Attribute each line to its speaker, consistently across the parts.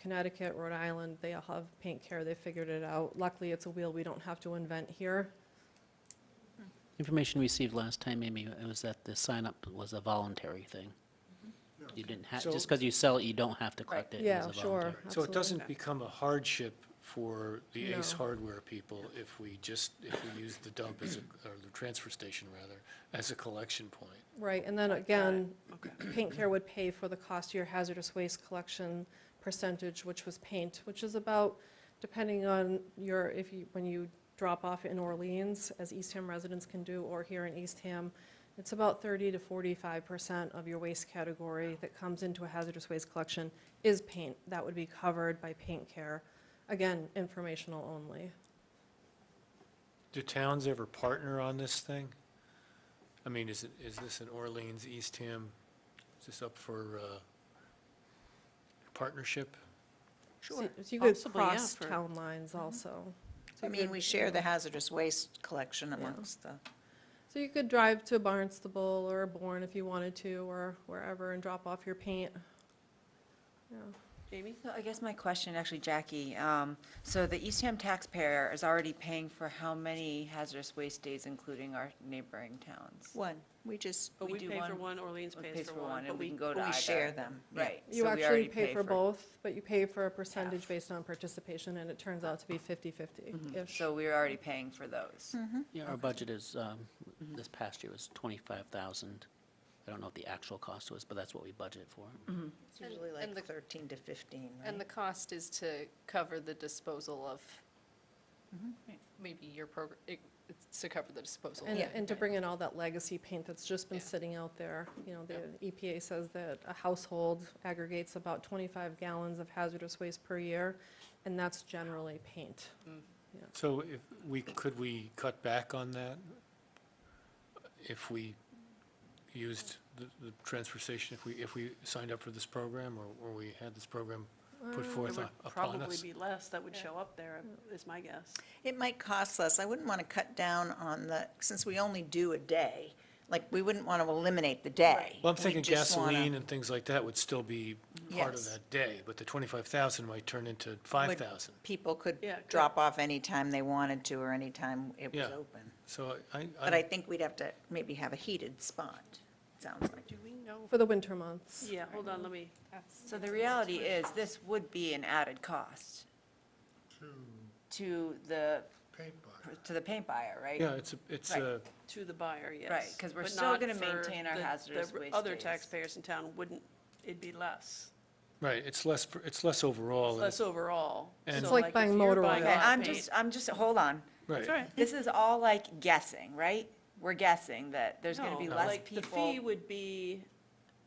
Speaker 1: Connecticut, Rhode Island, they all have paint care, they figured it out. Luckily, it's a wheel we don't have to invent here.
Speaker 2: Information received last time, Amy, it was that the sign-up was a voluntary thing. You didn't have,
Speaker 3: So-
Speaker 2: just because you sell it, you don't have to collect it. It was
Speaker 1: Yeah,
Speaker 2: a
Speaker 1: sure,
Speaker 2: voluntary.
Speaker 3: So it
Speaker 1: absolutely.
Speaker 3: doesn't become a hardship for the Ace
Speaker 1: No.
Speaker 3: Hardware people if we just, if we use the dump as a, or the transfer station rather, as a collection point?
Speaker 1: Right, and then again, Paint Care would pay for the cost of your hazardous waste collection percentage, which was paint, which is about, depending on your, if you, when you drop off in Orleans, as Eastham residents can do, or here in Eastham, it's about 30 to 45% of your waste category that comes into a hazardous waste collection is paint. That would be covered by Paint Care. Again, informational only.
Speaker 3: Do towns ever partner on this thing? I mean, is it, is this an Orleans, Eastham, is this up for, uh, partnership?
Speaker 1: So
Speaker 4: Sure.
Speaker 1: You could
Speaker 4: Possibly, yeah,
Speaker 1: cross
Speaker 4: for- Mm-hmm.
Speaker 1: town lines also. So
Speaker 5: I
Speaker 1: you
Speaker 5: mean,
Speaker 1: could,
Speaker 5: we
Speaker 1: you
Speaker 5: share
Speaker 1: know.
Speaker 5: the hazardous waste collection amongst the,
Speaker 1: So you could drive to Barnstable or Bourne if you wanted to, or wherever, and drop off your paint. Yeah.
Speaker 4: Jamie?
Speaker 6: So I guess my question, actually, Jackie, um, so the Eastham taxpayer is already paying for how many hazardous waste days, including our neighboring towns?
Speaker 5: one, we just,
Speaker 4: But
Speaker 6: We
Speaker 4: we
Speaker 6: do
Speaker 4: pay for
Speaker 6: one,
Speaker 4: one, Orleans
Speaker 6: Or
Speaker 4: pays for one,
Speaker 6: and
Speaker 4: but
Speaker 6: we
Speaker 4: we,
Speaker 6: can go to
Speaker 5: we
Speaker 6: either.
Speaker 5: share them. yeah.
Speaker 6: Right.
Speaker 1: You
Speaker 6: so we already
Speaker 1: actually pay for both, but you pay for a percentage
Speaker 6: Half. Mm-hmm.
Speaker 1: based on participation, and it turns out to be 50/50-ish.
Speaker 6: So we're already paying for those.
Speaker 2: Yeah, our budget is, um, this past year was 25,000. I don't know what the actual cost was, but that's what we budgeted for.
Speaker 5: It's usually
Speaker 4: and
Speaker 5: like
Speaker 4: the-
Speaker 5: 13 to 15,
Speaker 4: and the
Speaker 5: right?
Speaker 4: cost is to cover the disposal of, maybe your program, it's to cover the disposal.
Speaker 1: Mm-hmm. And,
Speaker 5: Yeah.
Speaker 1: and to bring in all that legacy paint that's just been
Speaker 4: Yeah.
Speaker 1: sitting out there, you know, the EPA says that a household aggregates about 25 gallons of hazardous waste per year, and that's generally paint.
Speaker 3: So if we, could we cut back on that? If we used the, the transfer station, if we, if we signed up for this program, or, or we had this program put
Speaker 4: It
Speaker 3: forth
Speaker 4: would
Speaker 3: u- upon
Speaker 7: probably
Speaker 3: us?
Speaker 7: be less that would show up there, is my guess.
Speaker 5: It might cost less. I wouldn't want to cut down on the, since we only do a day, like, we wouldn't want to eliminate the day.
Speaker 3: Well, I'm
Speaker 5: We
Speaker 3: thinking
Speaker 5: just wanna-
Speaker 3: gasoline and things like that would still be part of
Speaker 5: Yes.
Speaker 3: that day, but the twenty-five thousand might turn into five thousand.
Speaker 5: People could
Speaker 7: Yeah, good.
Speaker 5: drop off anytime they wanted to or anytime it was
Speaker 3: Yeah.
Speaker 5: open.
Speaker 3: So I,
Speaker 5: But I
Speaker 3: I,
Speaker 5: think we'd have to maybe have a heated spot, sounds like.
Speaker 7: Do we know?
Speaker 1: For the winter months.
Speaker 7: Yeah, hold on, let me,
Speaker 6: So the reality is, this would be an added cost to the, to the paint buyer, right?
Speaker 3: yeah, it's, a- it's
Speaker 6: Right.
Speaker 3: a,
Speaker 7: to the buyer, yes.
Speaker 6: 'cause we're
Speaker 7: but
Speaker 6: still
Speaker 7: not
Speaker 6: gonna
Speaker 7: for
Speaker 6: maintain our
Speaker 7: the-
Speaker 6: hazardous
Speaker 7: the
Speaker 6: waste
Speaker 7: Other
Speaker 6: days.
Speaker 7: taxpayers in town wouldn't, it'd be less,
Speaker 3: right, it's less, per- it's less overall. and
Speaker 7: less
Speaker 3: it-
Speaker 7: overall.
Speaker 3: And-
Speaker 7: So
Speaker 3: It's
Speaker 1: like
Speaker 7: if
Speaker 1: buying
Speaker 7: you're
Speaker 1: motor
Speaker 7: buying
Speaker 1: oil.
Speaker 6: Okay,
Speaker 7: hot
Speaker 6: I'm
Speaker 7: paint-
Speaker 6: just, I'm just, hold on.
Speaker 7: That's right.
Speaker 3: Right,
Speaker 6: This is all like guessing, right? We're guessing that there's gonna
Speaker 7: No,
Speaker 6: be less
Speaker 7: like,
Speaker 6: people.
Speaker 7: The fee would be,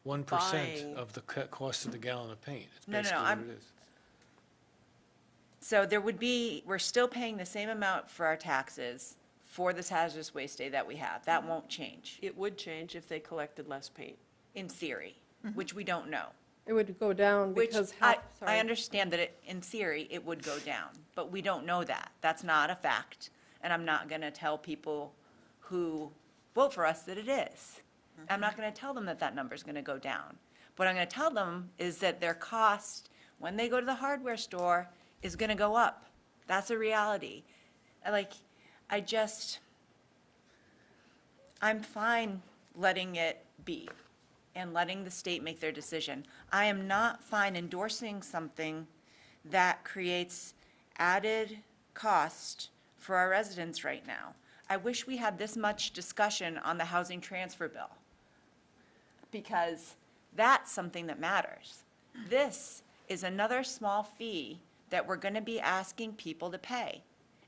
Speaker 3: one percent
Speaker 7: Buying.
Speaker 3: of the co- cost of the gallon of paint. It's
Speaker 6: No, no, no,
Speaker 3: basically what
Speaker 6: I'm-
Speaker 3: it is.
Speaker 6: So there would be, we're still paying the same amount for our taxes for this hazardous waste day that we have. That won't change,
Speaker 7: it would change if they collected less paint.
Speaker 6: in theory, which we don't know.
Speaker 1: It would go down
Speaker 6: Which
Speaker 1: Um, because
Speaker 6: I,
Speaker 1: half, sorry.
Speaker 6: I understand that it, in theory, it would go down, but we don't know that. That's not a fact. And I'm not gonna tell people who vote for us that it is. I'm not gonna tell them that that number's gonna go down. What I'm gonna tell them is that their cost, when they go to the hardware store, is gonna go up. That's a reality. I like, I just, I'm fine letting it be and letting the state make their decision. I am not fine endorsing something that creates added cost for our residents right now. I wish we had this much discussion on the housing transfer bill, because that's something that matters. This is another small fee that we're gonna be asking people to pay,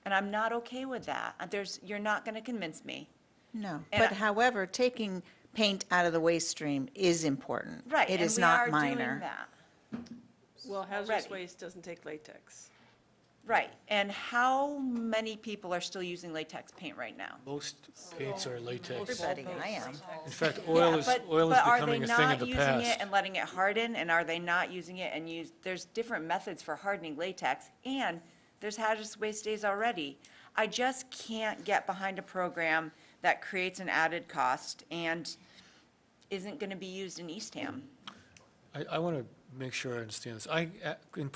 Speaker 6: and I'm not okay with that. There's, you're not gonna convince me.
Speaker 5: No,
Speaker 6: And
Speaker 5: but
Speaker 6: I-
Speaker 5: however, taking paint out of the waste stream is important.
Speaker 6: Right,
Speaker 5: It
Speaker 6: and
Speaker 5: is
Speaker 6: we
Speaker 5: not
Speaker 6: are doing
Speaker 5: minor.
Speaker 6: that.
Speaker 7: Well, hazardous
Speaker 6: Already.
Speaker 7: waste doesn't take latex.
Speaker 6: Right, and how many people are still using latex paint right now?
Speaker 3: Most paints are latex.
Speaker 5: Everybody, I am.
Speaker 3: In fact, oil
Speaker 6: Yeah,
Speaker 3: is,
Speaker 6: but-
Speaker 3: oil is
Speaker 6: but are they
Speaker 3: becoming a thing of
Speaker 6: not
Speaker 3: the
Speaker 6: using it
Speaker 3: past.
Speaker 6: And letting it harden, and are they not using it and use, there's different methods for hardening latex, and there's hazardous waste days already. I just can't get behind a program that creates an added cost and isn't gonna be used in Eastham.
Speaker 3: I, I want to make sure I understand this. I, uh, in